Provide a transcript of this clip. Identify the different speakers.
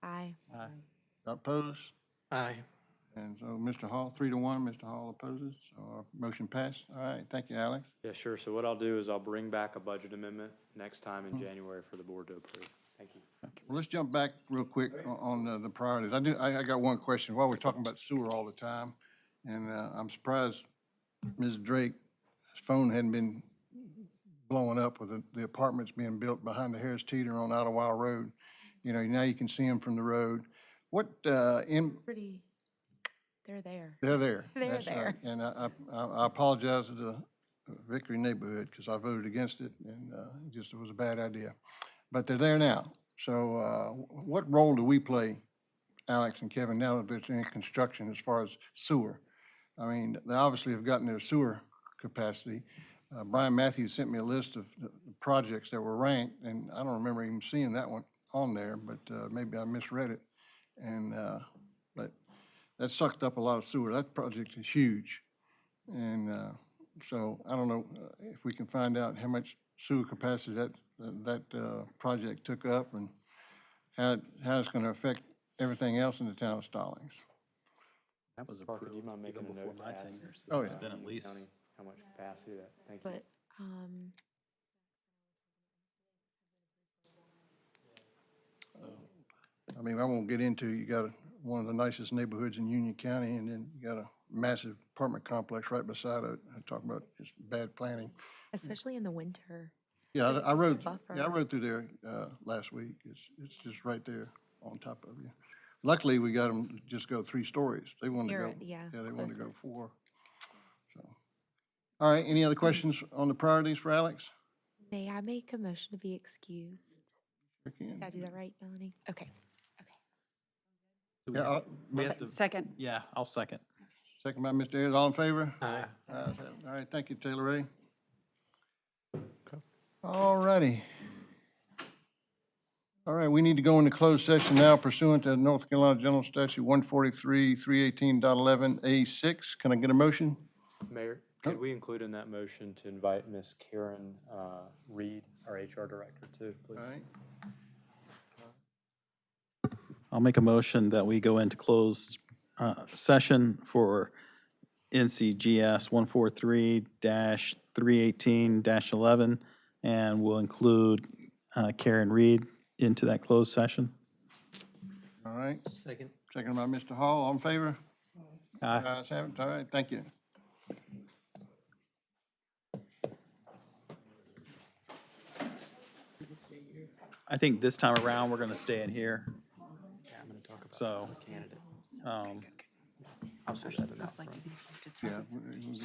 Speaker 1: Opposed?
Speaker 2: Aye.
Speaker 1: And so Mr. Hall, three to one, Mr. Hall opposes, so our motion passed. All right, thank you, Alex.
Speaker 3: Yeah, sure. So what I'll do is I'll bring back a budget amendment next time
Speaker 4: Hmm.
Speaker 3: in January for the board to approve. Thank you.
Speaker 1: Well, let's jump back real quick o- on uh, the priorities. I do, I, I got one question. While we're talking about sewer all the time, and uh, I'm surprised Ms. Drake's phone hadn't been blowing up with the- the apartments being built behind the Harris Teeter on Ottawa Road. You know, now you can see them from the road. What, uh, in,
Speaker 5: pretty, they're there.
Speaker 1: They're there.
Speaker 5: They're
Speaker 1: That's right.
Speaker 5: there.
Speaker 1: And I, I- I I apologize to the Victory neighborhood because I voted against it and uh, it just was a bad idea. But they're there now. So uh, wh- what role do we play, Alex and Kevin, now that there's any construction as far as sewer? I mean, they obviously have gotten their sewer capacity. Uh, Brian Matthews sent me a list of the the projects that were ranked and I don't remember even seeing that one on there, but uh, maybe I misread it. And, uh, but that sucked up a lot of sewer. That project is huge. And uh, so I don't know uh, if we can find out how much sewer capacity that, that uh, project took up and how, it- how it's going to affect everything else in the town of Stallings.
Speaker 4: That was
Speaker 3: Parker, do you
Speaker 4: approved
Speaker 3: mind
Speaker 4: even
Speaker 3: making a
Speaker 4: before
Speaker 3: note to
Speaker 4: my
Speaker 3: ask?
Speaker 4: tenure. so
Speaker 1: Oh,
Speaker 4: It's
Speaker 1: yeah.
Speaker 4: been at least
Speaker 3: County, How much capacity that, thank you.
Speaker 5: But, um,
Speaker 1: I mean, I won't get into, you got a- one of the nicest neighborhoods in Union County, and then you got a massive apartment complex right beside it. I talk about just bad planning.
Speaker 5: especially in the winter.
Speaker 1: Yeah,
Speaker 5: So it's
Speaker 1: I I
Speaker 5: a
Speaker 1: rode, yeah, I
Speaker 5: buffer.
Speaker 1: rode through there uh, last week. It's, it's just right there on top of you. Luckily, we got them to just go three stories. They wanted to
Speaker 5: Near
Speaker 1: go,
Speaker 5: it, yeah,
Speaker 1: yeah, they wanted to go
Speaker 5: closest. Hmm.
Speaker 1: four. So, All right, any other questions on the priorities for Alex?
Speaker 5: May I make a motion to be excused?
Speaker 1: Rick, Ian?
Speaker 5: Did I do that right, Melanie? Okay.
Speaker 1: Yeah, uh,
Speaker 4: We have to,
Speaker 6: Second.
Speaker 4: yeah, I'll second.
Speaker 1: second by Mr. Ayers, all in favor?
Speaker 3: Aye.
Speaker 1: Ayes have it. All right, thank you, Taylor Ray. All righty. All right, we need to go into closed session now pursuant to North Carolina General Statute 143, 318.11A6. Can I get a motion?
Speaker 3: Mayor, could we include in that motion to invite Miss Karen uh, Reed, our HR director, too, please?
Speaker 1: All right,
Speaker 4: I'll make a motion that we go into closed uh, session for NCGS 143-318-11, and we'll include uh, Karen Reed into that closed session.
Speaker 1: all right.
Speaker 2: Second.
Speaker 1: Second by Mr. Hall, all in favor?
Speaker 4: Aye.
Speaker 1: Ayes have it, all right, thank you.
Speaker 4: I think this time around, we're going to stay in here. So. um,
Speaker 6: I was like, you have to
Speaker 1: Yeah, we- we-